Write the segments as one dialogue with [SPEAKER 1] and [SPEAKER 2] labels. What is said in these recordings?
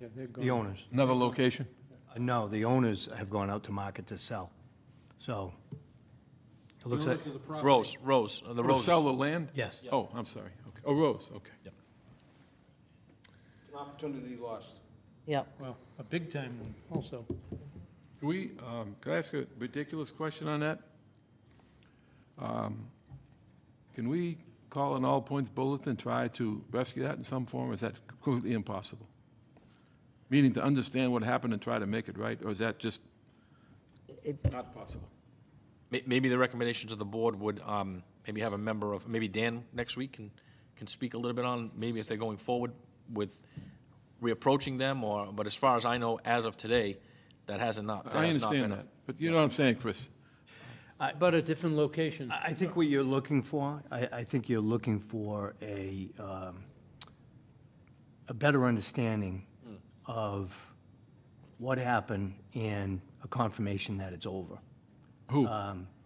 [SPEAKER 1] Yeah, they've
[SPEAKER 2] the
[SPEAKER 1] gone.
[SPEAKER 2] owners.
[SPEAKER 3] Another location?
[SPEAKER 2] Uh, No, the owners have gone out to market to sell. So it looks like,
[SPEAKER 4] Rose, Rose, uh, the
[SPEAKER 3] Or
[SPEAKER 4] Roses.
[SPEAKER 3] sell the land?
[SPEAKER 2] yes.
[SPEAKER 3] Oh, I'm sorry. Okay. Oh, Rose, okay.
[SPEAKER 5] An opportunity lost.
[SPEAKER 6] Yep.
[SPEAKER 1] Well, a big time one also.
[SPEAKER 3] Can we, um, can I ask a ridiculous question on that? Um, Can we call an all points bulletin, try to rescue that in some form? or Is that completely impossible? Meaning to understand what happened and try to make it right, or is that just not possible?
[SPEAKER 4] May- Maybe the recommendation to the board would, um, maybe have a member of, maybe Dan next week can, can speak a little bit on, maybe if they're going forward with reapproaching them or, but as far as I know, as of today, that hasn't not, that
[SPEAKER 3] I
[SPEAKER 4] has not been.
[SPEAKER 3] understand that, but you know what I'm saying, Chris?
[SPEAKER 1] But a different location.
[SPEAKER 2] I I think what you're looking for, I, I think you're looking for a, um, a better understanding of what happened and a confirmation that it's over.
[SPEAKER 3] Who?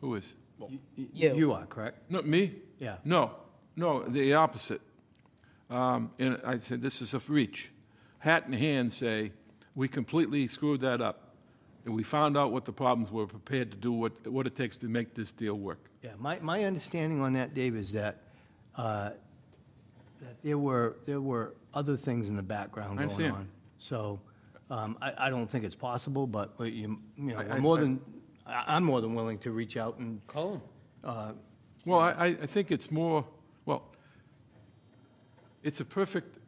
[SPEAKER 3] Who is?
[SPEAKER 2] Y-
[SPEAKER 6] You.
[SPEAKER 2] You are, correct?
[SPEAKER 3] Not me?
[SPEAKER 2] Yeah.
[SPEAKER 3] No, no, the opposite. Um, And I said, this is a reach. Hat in hand say, we completely screwed that up, and we found out what the problems were, prepared to do what, what it takes to make this deal work.
[SPEAKER 2] Yeah, my, my understanding on that, Dave, is that, uh, that there were, there were other things in the background
[SPEAKER 3] I
[SPEAKER 2] going
[SPEAKER 3] understand.
[SPEAKER 2] on. So, um, I, I don't think it's possible, but, but you, you know,
[SPEAKER 3] I-
[SPEAKER 2] I'm
[SPEAKER 3] I-
[SPEAKER 2] more
[SPEAKER 3] I-
[SPEAKER 2] than, I, I'm more than willing to reach out and,
[SPEAKER 1] Call them.
[SPEAKER 3] Well, I, I- I think it's more, well, it's a perfect,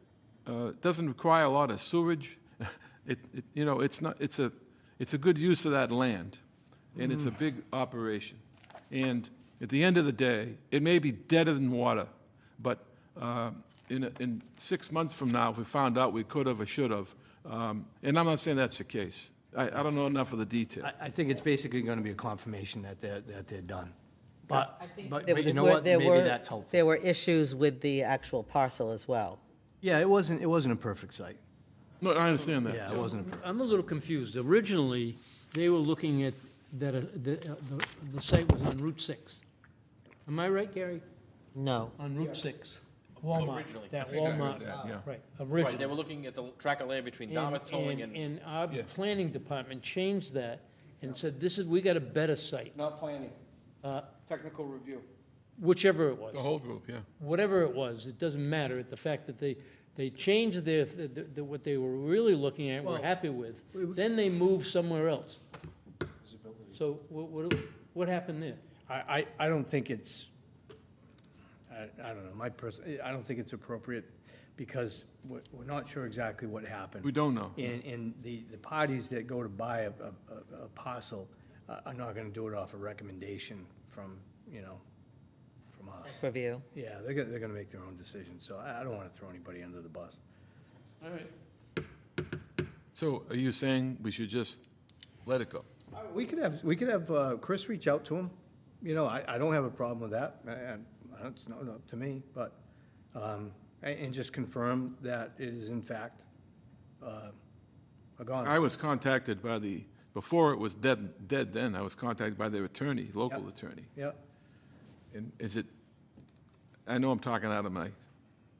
[SPEAKER 3] uh, doesn't require a lot of sewage. It, it- you know, it's not, it's a, it's a good use of that land, and it's a big operation. And at the end of the day, it may be deader than water, but um, in, a- in six months from now, if we found out we could have or should have, um, and I'm not saying that's the case. I, I don't know enough of the detail.
[SPEAKER 2] I, I think it's basically gonna be a confirmation that they're, that they're done. But, but
[SPEAKER 6] There
[SPEAKER 2] but you know
[SPEAKER 6] were-
[SPEAKER 2] what,
[SPEAKER 6] there
[SPEAKER 2] maybe
[SPEAKER 6] were-
[SPEAKER 2] that's helpful.
[SPEAKER 6] There were issues with the actual parcel as well.
[SPEAKER 2] Yeah, it wasn't, it wasn't a perfect site.
[SPEAKER 3] No, I understand that.
[SPEAKER 2] Yeah, it wasn't a perfect.
[SPEAKER 1] I'm a little confused. Originally, they were looking at that, uh, the, uh, the- the site was on Route 6. Am I right, Gary?
[SPEAKER 6] No.
[SPEAKER 1] On Route 6, Walmart.
[SPEAKER 4] Originally.
[SPEAKER 1] That
[SPEAKER 3] think I heard
[SPEAKER 1] Walmart,
[SPEAKER 3] that, yeah.
[SPEAKER 1] right,
[SPEAKER 4] Right, they
[SPEAKER 1] originally.
[SPEAKER 4] were looking at the track of land between Dartmouth Towing and,
[SPEAKER 1] And our planning department changed that and said, this is, we got a better site,
[SPEAKER 5] Not planning,
[SPEAKER 1] uh,
[SPEAKER 5] technical review.
[SPEAKER 1] whichever it was.
[SPEAKER 3] The whole group, yeah.
[SPEAKER 1] whatever it was, it doesn't matter, It- the fact that they, they changed their, the- the- what they were really looking at, were happy with, then they moved somewhere else. So what, what, what happened there?
[SPEAKER 7] I, I, I don't think it's, I, I don't know, my person, I don't think it's appropriate because we're, we're not sure exactly what happened.
[SPEAKER 3] We don't know.
[SPEAKER 7] And, and the, the parties that go to buy a, a, a parcel uh, are not gonna do it off a recommendation from, you know, from us.
[SPEAKER 6] Review.
[SPEAKER 7] Yeah, they're gonna, they're gonna make their own decision, so I, I don't wanna throw anybody under the bus.
[SPEAKER 3] All right. So are you saying we should just let it go?
[SPEAKER 7] Uh, We could have, we could have uh, Chris reach out to him. You know, I, I don't have a problem with that. I, I- I, it's not up to me, but, um, a- and, just confirm that it is in fact, uh, a gone.
[SPEAKER 3] I was contacted by the, before it was dead, dead then, I was contacted by their attorney, local
[SPEAKER 7] Yep.
[SPEAKER 3] attorney.
[SPEAKER 7] Yeah,
[SPEAKER 3] And is it, I know I'm talking out of my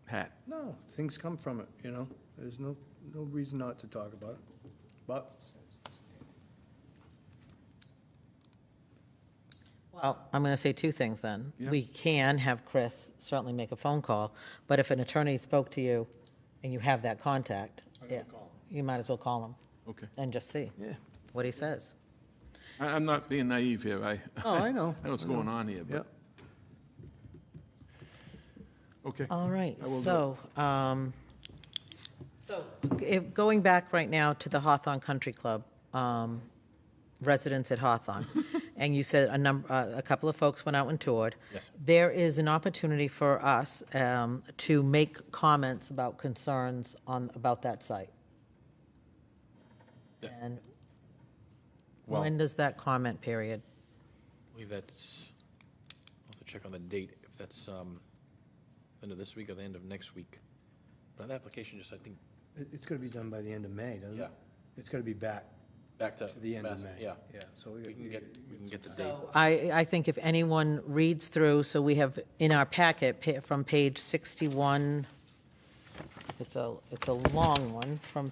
[SPEAKER 3] hat.
[SPEAKER 7] no, things come from it, you know? There's no, no reason not to talk about it. But
[SPEAKER 6] Well, I'm going to say two things then.
[SPEAKER 3] Yeah.
[SPEAKER 6] We can have Chris certainly make a phone call, but if an attorney spoke to you and you have that contact, yeah, you might as well call him
[SPEAKER 3] Okay.
[SPEAKER 6] and just see
[SPEAKER 2] Yeah.
[SPEAKER 6] what he says.
[SPEAKER 3] I, I'm not being naive here, I.
[SPEAKER 2] Oh, I know.
[SPEAKER 3] I know what's going on here, but. Okay.
[SPEAKER 6] All right,
[SPEAKER 3] I will do
[SPEAKER 6] so, um, so if, going back right now to the Hawthorne Country Club, um, residents at Hawthorne, and you said a number, uh, a couple of folks went out and toured. Yes. There is an opportunity for us, um, to make comments about concerns on, about that site. And
[SPEAKER 4] Well-
[SPEAKER 6] when does that comment period?
[SPEAKER 4] I believe that's, I'll have to check on the date, if that's, um, end of this week or the end of next week. But that application just, I think,
[SPEAKER 2] It, it's gonna be done by the end of May, doesn't it?
[SPEAKER 4] Yeah.
[SPEAKER 2] It's gonna be back
[SPEAKER 4] back to.
[SPEAKER 2] to the end of May.
[SPEAKER 4] Yeah,
[SPEAKER 2] Yeah, so we.
[SPEAKER 4] we can get, we can get the date.
[SPEAKER 6] So I, I think if anyone reads through, so we have in our packet pa- from page 61, it's a, it's a long one, from